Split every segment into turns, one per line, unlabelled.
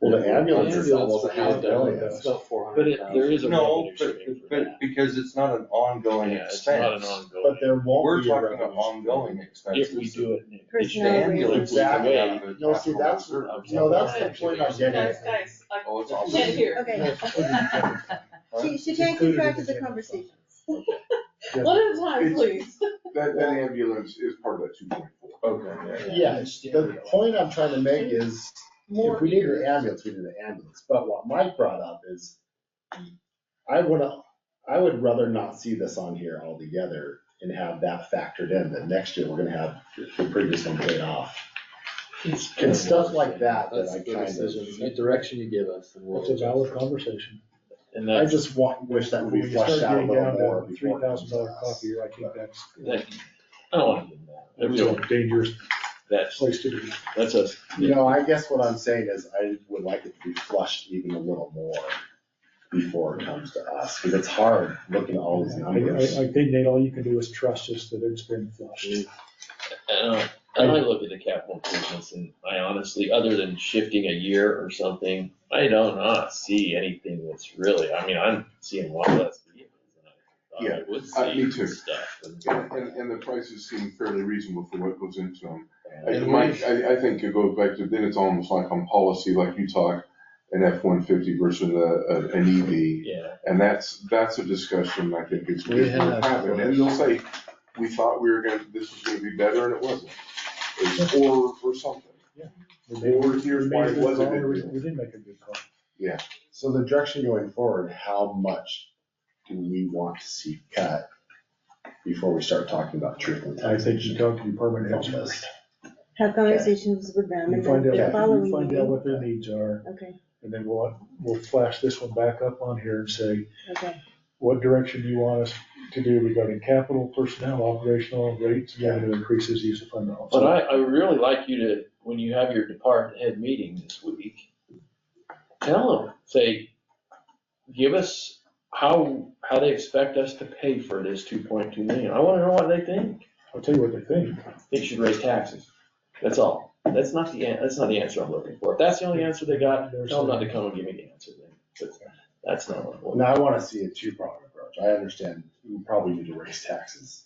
the ambulance
ambulance
is almost a
for
half
the
billion.
ambulance.
It's about four
But
hundred
it,
thousand.
there is a
No,
revenue
but,
stream for
but,
that.
because it's not an ongoing
Yeah, it's not an
expense.
But
ongoing,
there
We're
won't be a
talking about
revenue stream.
ongoing expenses.
if we do it.
The
Personnel
ambulance is
Exactly.
out of it
No, see,
after
that's-
reserve.
No, that's the point I'm getting
Guys,
at.
guys, I
Oh, it's awesome.
can't hear.
Okay, she, she
Included
can't
in
keep track
the
of the
agenda.
conversations.
One at a time, please.
That, that ambulance is part of that two point four.
Okay, yeah.
Yes, the point I'm trying to make is, if we need an ambulance, we need an ambulance, but what Mike brought up is, I would, I would rather not see this on here altogether and have that factored in, that next year we're gonna have the previous one paid off. And stuff like that, that I kind
What direction you give us. and we'll-
That's a valid conversation.
And
of, I
that's,
just want, wish that would
When
be
you
fleshed
start
out a
getting
little
down
more.
to three
before it comes
thousand
to
dollar
us.
copier, I think that's,
that, I don't want to do that.
that's a dangerous
That's,
place to be.
that's us.
You know, I guess what I'm saying is I would like it to be flushed even a little more before it comes to us, because it's hard looking at all these
I,
numbers.
I, I think Nate, all you can do is trust us that it's been flushed.
And I- and I look at the capital improvements and I honestly, other than shifting a year or something, I don't not see anything that's really, I mean, I'm seeing a lot less vehicles than I thought I would
uh, me
see
too.
and stuff. and-
And, and, and the prices seem fairly reasonable for what goes into them. I,
And
Mike, I, I think it goes back to, then it's almost like on policy, like you talk, an F one fifty versus a, a, an EV.
Yeah,
And that's, that's a discussion I think is,
We
is gonna
have-
happen. And you'll say, we thought we were gonna, this was gonna be better and it wasn't. It's or, or something.
We made-
Or here's why
we made
it
a good
was a
call,
good
or
deal.
We did make a good call.
So the direction going forward, how much do we want to see cut before we start talking about truthful
I
taxation?
think you talk to department heads.
Have conversations with them
You
and
find
then
out,
the following
you find out
meeting.
what their needs are,
Okay,
and then we'll, we'll flash this one back up on here and say,
okay.
what direction do you want us to do regarding capital, personnel, operational, rates, revenue increases, use of fund balance.
but I, I would really like you to, when you have your department head meeting this week, tell them, say, give us how, how they expect us to pay for this two point two million. I wanna know what they think.
I'll tell you what they think.
they should raise taxes. That's all. That's not the, an- that's not the answer I'm looking for. If that's the only answer they got, tell them not to come and give me the answer then. But That's not what I want.
Now, I wanna see a two-pronged approach. I understand we probably need to raise taxes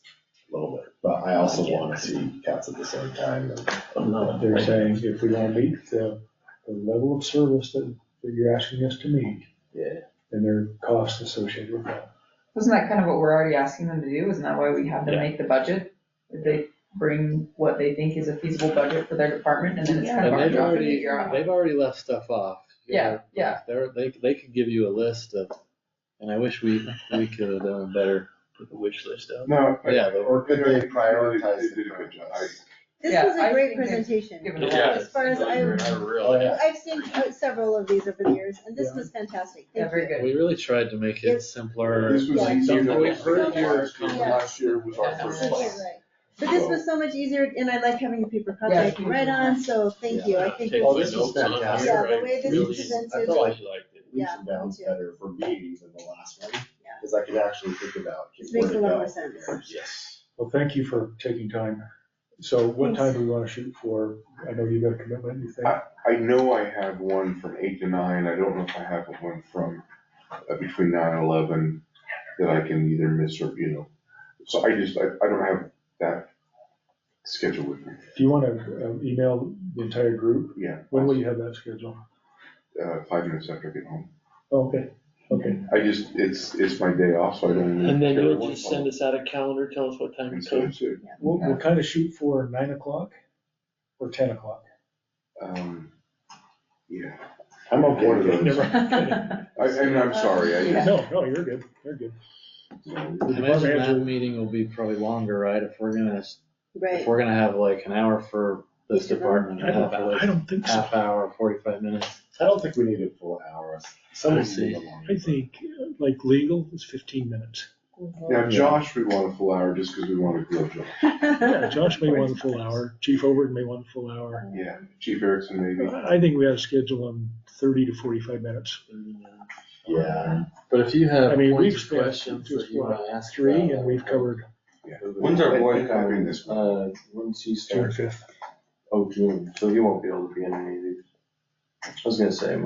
a little bit, but I also wanna see cuts at the same time.
I'm not-
They're saying if we don't meet the, the level of service that, that you're asking us to meet,
Yeah.
then there are costs associated with that.
Wasn't that kind of what we're already asking them to do? Isn't that why we have them
Yeah.
make the budget? That They bring what they think is a feasible budget for their department and then it's kind of
And
our
they've
job to
already,
figure out.
they've already left stuff off.
Yeah, yeah.
They're, they, they could give you a list of, and I wish we, we could have done better, put the wish list out.
No. I-
Yeah, but
Or could they prioritize?
They did
the
a good job.
priorities?
This
Yeah,
was
I
a great
think they've
presentation.
Given a lot
Yeah.
of-
As far as I,
I
Oh,
really,
yeah.
I've seen uh, several of these over the years and this
Yeah.
was fantastic.
Yeah,
Thank
very
you.
good.
We really tried to make it simpler.
This was
Yeah.
easier than
We've heard
last year.
your
Last year was our first
Absolutely
class.
right. But this was so much easier and I like having a paper copy
Yeah.
I can write on, so thank you. I think.
Take
Oh,
my
this was
notes on
fantastic.
here,
Yeah, the
I
way this
really-
presented-
I really liked it.
leaps
Yeah,
and bounds
me too.
better for me than the last one, because I could actually think about.
This makes a lot more sense.
Yes.
Well, thank you for taking time. So what time do we want to shoot for? I know you've got a commitment, you think?
I know I have one from eight to nine, I don't know if I have one from, uh, between nine and eleven that I can either miss or, you know. So I just, I, I don't have that schedule with me,
Do you want to email the entire group?
yeah,
When will you have that scheduled?
uh, five minutes after I get home.
Oh, Okay, okay.
I just, it's, it's my day off, so I don't. really
And then
care
you'll
what
just
phone.
send us out a calendar, tell us what time
And
to
so
come.
it's, uh,
We'll, we'll kind of shoot for nine o'clock or ten o'clock.
um, yeah,
I'm okay
One of
with
those.
it.
Never mind.
I, and I'm sorry, I just.
No, no, you're good, you're good.
no.
I imagine that meeting will be probably longer, right? If we're gonna, if
Right.
we're gonna have like an hour for this
Each of them.
department,
I
and half,
don't, I
hour-
don't think so.
half hour, forty-five minutes.
I don't think we need a full hour, some of them need a longer.
I think uh, like legal is fifteen minutes.
Now Josh, we want a full hour just because we want to grill Josh,
Yeah, Josh may want a full hour, Chief Overton may want a full hour.
yeah, Chief Erickson maybe.
I I think we ought to schedule them thirty to forty-five minutes.
Yeah,
But if you have
I mean, we've
points or
spent
questions
just
that you
what,
wanna ask.
Three,
about-
and we've covered
When's our boy
And- and I mean
coming?
this one.
Uh, when's he
June
start?
fifth.
Oh, June, so he won't be able to be in any of these. I was gonna say,